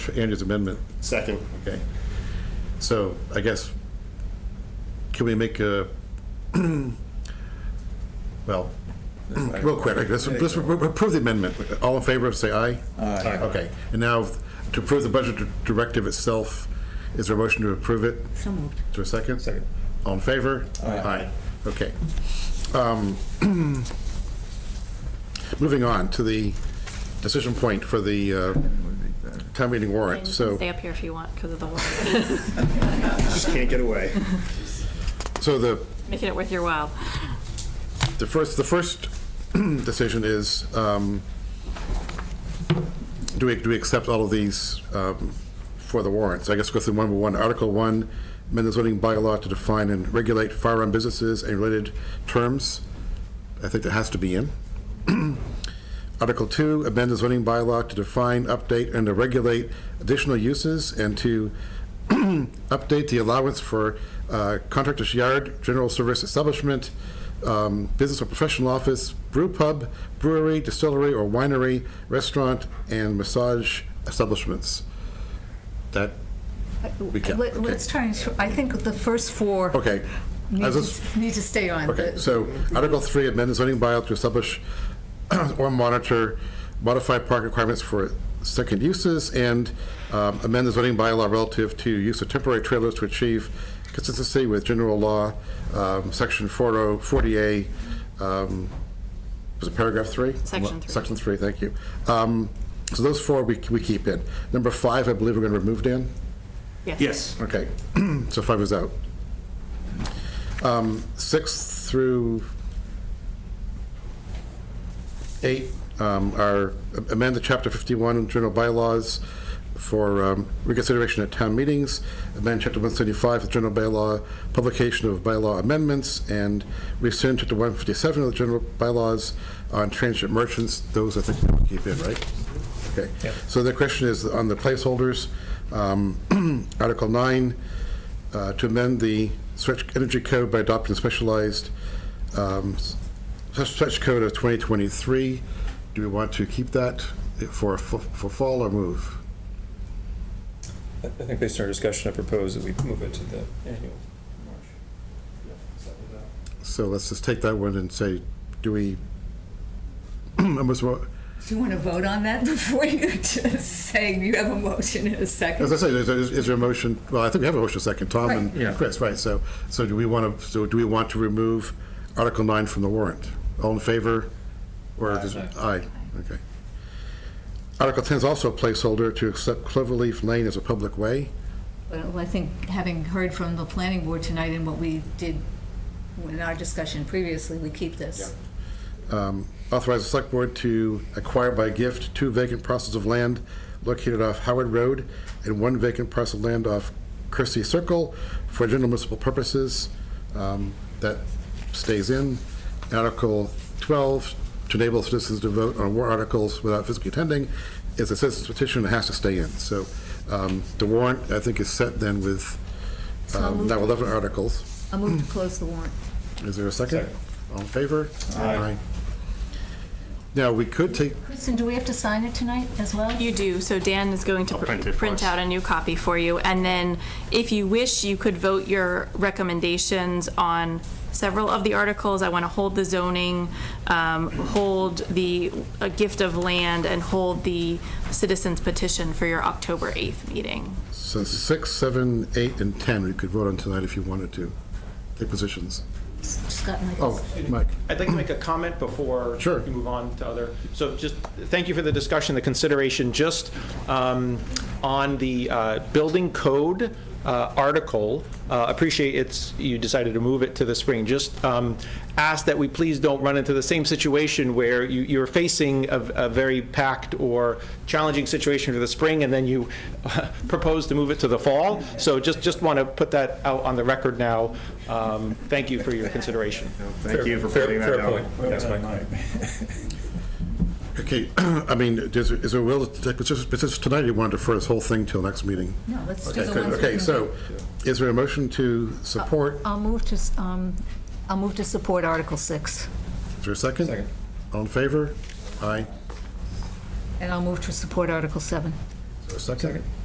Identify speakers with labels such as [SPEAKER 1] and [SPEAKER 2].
[SPEAKER 1] Andrew's amendment,
[SPEAKER 2] Second.
[SPEAKER 1] okay. So I guess, can we make a, well, real quick, I guess, let's approve the amendment. All in favor, say aye.
[SPEAKER 2] Aye.
[SPEAKER 1] Okay, and now to approve the budget directive itself, is there a motion to approve it?
[SPEAKER 3] So moved.
[SPEAKER 1] Is there a second?
[SPEAKER 2] Second.
[SPEAKER 1] All in favor?
[SPEAKER 2] Aye.
[SPEAKER 1] Okay. Um, Moving on to the decision point for the uh, town meeting warrant,
[SPEAKER 4] You
[SPEAKER 1] so.
[SPEAKER 4] can stay up here if you want because of the water.
[SPEAKER 2] Just can't get away.
[SPEAKER 1] So the,
[SPEAKER 4] Making it worth your while.
[SPEAKER 1] the first, the first decision is, um, do we, do we accept all of these um, for the warrant? So I guess go through one by one. Article one, amend the zoning bylaw to define and regulate firearm businesses and related terms. I think that has to be in. Article two, amend the zoning bylaw to define, update, and to regulate additional uses and to update the allowance for uh, contractor's yard, general service establishment, um, business or professional office, brew pub, brewery, distillery or winery, restaurant, and massage establishments. That, we can,
[SPEAKER 3] Uh, Let-
[SPEAKER 1] okay.
[SPEAKER 3] Let's try and, sh- I think the first four
[SPEAKER 1] okay. I
[SPEAKER 3] need
[SPEAKER 1] was
[SPEAKER 3] to
[SPEAKER 1] just-
[SPEAKER 3] need to stay on.
[SPEAKER 1] Okay,
[SPEAKER 3] The-
[SPEAKER 1] so Article 3, amend the zoning bylaw to establish or monitor modified park requirements for second uses and um, amend the zoning bylaw relative to use of temporary trailers to achieve consistency with general law, um, Section 40 40A, um, was it paragraph 3?
[SPEAKER 4] Section three.
[SPEAKER 1] Section 3, thank you. Um, So those four we we keep in. Number 5, I believe we're going to remove, Dan?
[SPEAKER 2] Yes.
[SPEAKER 1] Okay, so five is out. Um, Six through eight um, are amend the Chapter 51 General Bylaws for um, reconsideration at town meetings, amend Chapter 175 of the General Bylaw, publication of bylaw amendments, and rescind Chapter 157 of the General Bylaws on transient merchants. Those, I think, we'll keep in, right? Okay. So the question is on the placeholders. Um, Article 9, uh, to amend the stretch energy code by adopting specialized um, s- stretch code of 2023. Do we want to keep that for, for for fall or move?
[SPEAKER 5] I I think based on our discussion, I propose that we move it to the annual.
[SPEAKER 1] So let's just take that one and say, do we, almost, wa-
[SPEAKER 3] Do you want to vote on that before you just say you have a motion in a
[SPEAKER 1] as I
[SPEAKER 3] second?
[SPEAKER 1] say, is is- is there a motion, well, I think we have a motion second, Tom
[SPEAKER 5] Right. Yeah.
[SPEAKER 1] and Chris, right? So, so do we want to, so do we want to remove Article 9 from the warrant? All in favor? Or does- Aye, okay. Article 10 is also a placeholder to accept Cloverleaf Lane as a public way.
[SPEAKER 3] Well, I think having heard from the planning board tonight and what we did in our discussion previously, we keep this.
[SPEAKER 1] Um, Authorize the select board to acquire by gift two vacant parcels of land located off Howard Road and one vacant parcel of land off Christie Circle for general municipal purposes. Um, That stays in. Article 12, to enable citizens to vote on war articles without physically attending, is a citizen's petition, it has to stay in. So um, the warrant, I think, is set then with
[SPEAKER 3] So I'll
[SPEAKER 1] um,
[SPEAKER 3] move
[SPEAKER 1] now
[SPEAKER 3] to-
[SPEAKER 1] 11 articles.
[SPEAKER 3] I'll move to close the warrant.
[SPEAKER 1] Is there a second?
[SPEAKER 5] Second.
[SPEAKER 1] All in favor?
[SPEAKER 2] Aye.
[SPEAKER 1] Now, we could take,
[SPEAKER 3] Kristen, do we have to sign it tonight as well?
[SPEAKER 4] You do, so Dan is going to
[SPEAKER 2] I'll print it
[SPEAKER 4] pr-
[SPEAKER 2] for
[SPEAKER 4] print
[SPEAKER 2] us.
[SPEAKER 4] out a new copy for you. And then if you wish, you could vote your recommendations on several of the articles. I want to hold the zoning, um, hold the uh, gift of land, and hold the citizens petition for your October 8th meeting.
[SPEAKER 1] since six, seven, eight, and 10, we could vote on tonight if you wanted to, the positions.
[SPEAKER 3] Scott
[SPEAKER 1] Oh,
[SPEAKER 3] Michaels.
[SPEAKER 1] Mike,
[SPEAKER 6] I'd like to make a comment before
[SPEAKER 1] Sure.
[SPEAKER 6] we move on to other, so just, thank you for the discussion, the consideration, just um, on the uh, building code uh, article, uh, appreciate it's, you decided to move it to the spring, just um, ask that we please don't run into the same situation where you- you're facing a- a very packed or challenging situation for the spring, and then you propose to move it to the fall, so just, just want to put that out on the record now. Um, Thank you for your consideration.
[SPEAKER 2] Thank you for
[SPEAKER 5] Fair-
[SPEAKER 2] putting that
[SPEAKER 5] Fair point.
[SPEAKER 2] out.
[SPEAKER 5] Yes, Mike.
[SPEAKER 1] okay, I mean, is is there a will to take positions positions tonight, or you want to defer this whole thing till next meeting?
[SPEAKER 3] No, let's do
[SPEAKER 1] Okay,
[SPEAKER 3] the
[SPEAKER 1] good.
[SPEAKER 3] ones we
[SPEAKER 1] Okay,
[SPEAKER 3] can
[SPEAKER 1] so, is there a motion to support?
[SPEAKER 3] I'll move to, s- um, I'll move to support Article 6.
[SPEAKER 1] Is there a second?
[SPEAKER 5] Second.
[SPEAKER 1] All in favor? Aye.
[SPEAKER 3] And I'll move to support Article 7.
[SPEAKER 1] a second?